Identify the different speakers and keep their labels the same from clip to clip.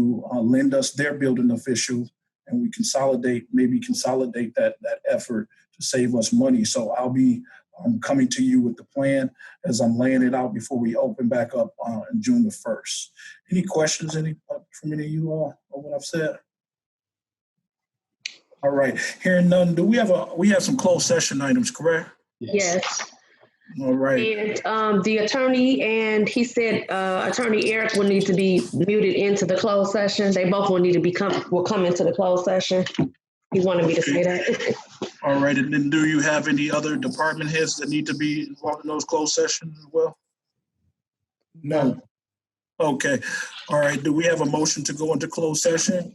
Speaker 1: to uh, lend us their building official, and we consolidate, maybe consolidate that that effort to save us money. So I'll be um, coming to you with the plan as I'm laying it out before we open back up uh, on June the first. Any questions, any uh, from any of you all on what I've said? All right, hearing none. Do we have a we have some closed session items, correct?
Speaker 2: Yes,
Speaker 1: All right.
Speaker 2: and um, the attorney and he said uh, Attorney Eric will need to be muted into the closed session. They both will need to be come will come into the closed session. He wanted me to say that.
Speaker 1: All right, and then do you have any other department heads that need to be involved in those closed sessions as well? No. Okay, all right, do we have a motion to go into closed session?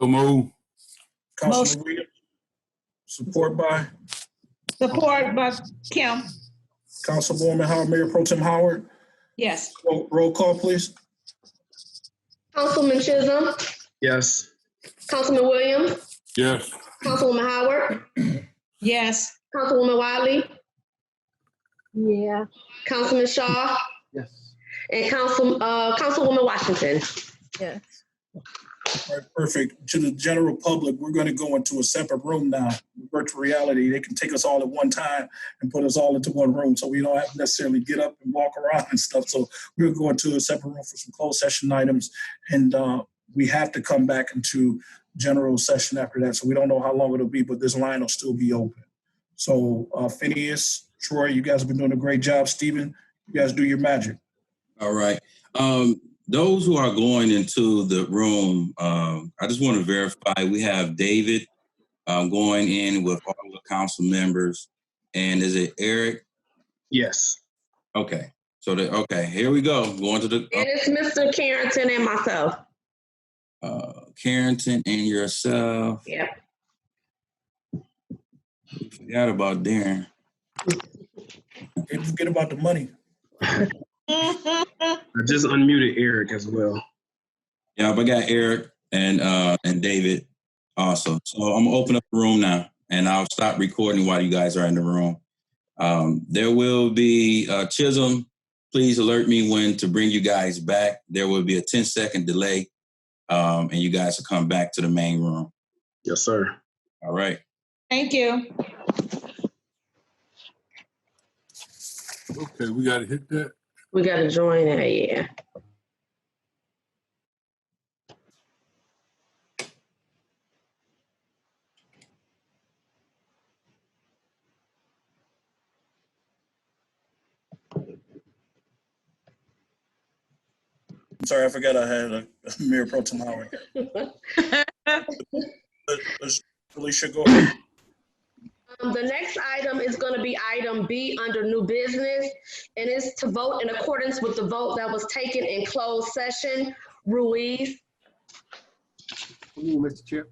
Speaker 3: So move.
Speaker 1: Councilman Williams? Support by
Speaker 4: Support by Kim,
Speaker 1: Councilwoman Howard, Mayor Pro Tem Howard.
Speaker 4: yes.
Speaker 1: Roll roll call, please.
Speaker 2: Councilman Chisholm,
Speaker 5: Yes.
Speaker 2: Councilman Williams,
Speaker 3: Yes.
Speaker 2: Councilwoman Howard,
Speaker 4: Yes.
Speaker 2: Councilwoman Wiley. Yeah. Councilman Shaw
Speaker 5: Yes.
Speaker 2: and Council uh, Councilwoman Washington.
Speaker 1: All right, perfect. To the general public, we're going to go into a separate room now. Virtual reality, they can take us all at one time and put us all into one room, so we don't have to necessarily get up and walk around and stuff. So we're going to a separate room for some closed session items, and uh, we have to come back into general session after that. So we don't know how long it'll be, but this line will still be open. So uh, Phineas, Troy, you guys have been doing a great job. Stephen, you guys do your magic.
Speaker 6: All right. Um, those who are going into the room, um, I just want to verify we have David um, going in with all the council members. And is it Eric?
Speaker 5: Yes.
Speaker 6: Okay. So, the, okay, here we go. Going to
Speaker 2: And
Speaker 6: the
Speaker 2: it's Mr. Carrington and myself.
Speaker 6: uh, Carrington and yourself.
Speaker 2: Yeah.
Speaker 6: Forgot about Darren.
Speaker 1: Can't forget about the money.
Speaker 5: I just unmuted Eric as well.
Speaker 6: Yeah, but I got Eric and uh, and David also. So I'm gonna open up the room now, and I'll stop recording while you guys are in the room. Um, there will be uh, Chisholm. Please alert me when to bring you guys back. There will be a 10 second delay, um, and you guys will come back to the main room.
Speaker 5: Yes, sir.
Speaker 6: All right.
Speaker 4: Thank you.
Speaker 3: Okay, we gotta hit that.
Speaker 2: We gotta join it, yeah.
Speaker 1: I'm sorry, I forgot I had a Mayor Pro Tem Howard. Alicia, go ahead.
Speaker 2: Um, the next item is gonna be item B under new business, and it's to vote in accordance with the vote that was taken in closed session. Ruiz,
Speaker 5: Mr. Chair.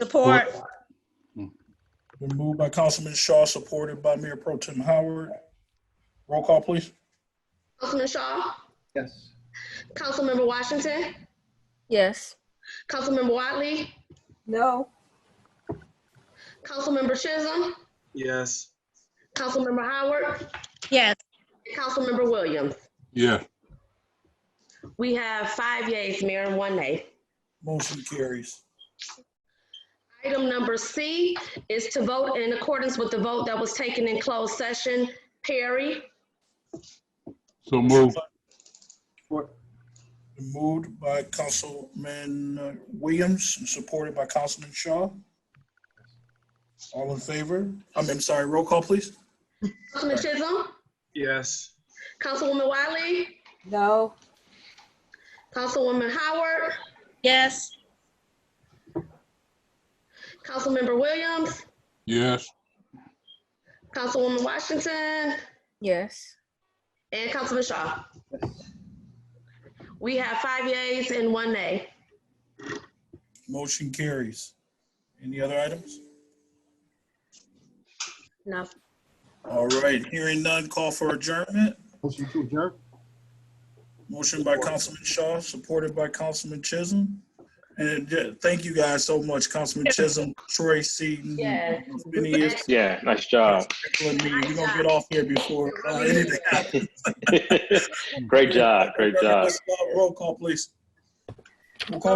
Speaker 4: Support,
Speaker 1: Been moved by Councilman Shaw, supported by Mayor Pro Tem Howard. Roll call, please.
Speaker 2: Councilman Shaw,
Speaker 5: Yes.
Speaker 2: Councilmember Washington,
Speaker 7: Yes.
Speaker 2: Councilmember Wiley,
Speaker 7: No.
Speaker 2: Councilmember Chisholm,
Speaker 5: Yes.
Speaker 2: Councilmember Howard,
Speaker 4: yes.
Speaker 2: and Councilmember Williams.
Speaker 3: Yeah.
Speaker 2: We have five yeas, Mayor, and one nay.
Speaker 1: Motion carries.
Speaker 2: Item number C is to vote in accordance with the vote that was taken in closed session. Perry,
Speaker 3: So move.
Speaker 1: Been Moved by Councilman uh, Williams and supported by Councilman Shaw. All in favor? I'm, I'm sorry, roll call, please.
Speaker 2: Councilman Chisholm,
Speaker 5: Yes.
Speaker 2: Councilwoman Wiley,
Speaker 7: No.
Speaker 2: Councilwoman Howard,
Speaker 4: Yes.
Speaker 2: Councilmember Williams,
Speaker 3: Yes.
Speaker 2: Councilwoman Washington,
Speaker 7: Yes.
Speaker 2: and Councilman Shaw. We have five yeas and one nay.
Speaker 1: Motion carries. Any other items?
Speaker 2: No.
Speaker 1: All right, hearing none, call for adjournment.
Speaker 5: Motion to adjourn.
Speaker 1: Motion by Councilman Shaw, supported by Councilman Chisholm. And uh, yeah, thank you guys so much, Councilman Chisholm, Troy Seaton.
Speaker 2: Yes.
Speaker 1: Phineas,
Speaker 8: Yeah, nice job.
Speaker 1: Nicola, me. We're gonna get off here before uh, anything happens.
Speaker 8: great job, great job.
Speaker 1: uh, Roll call, please. Roll call.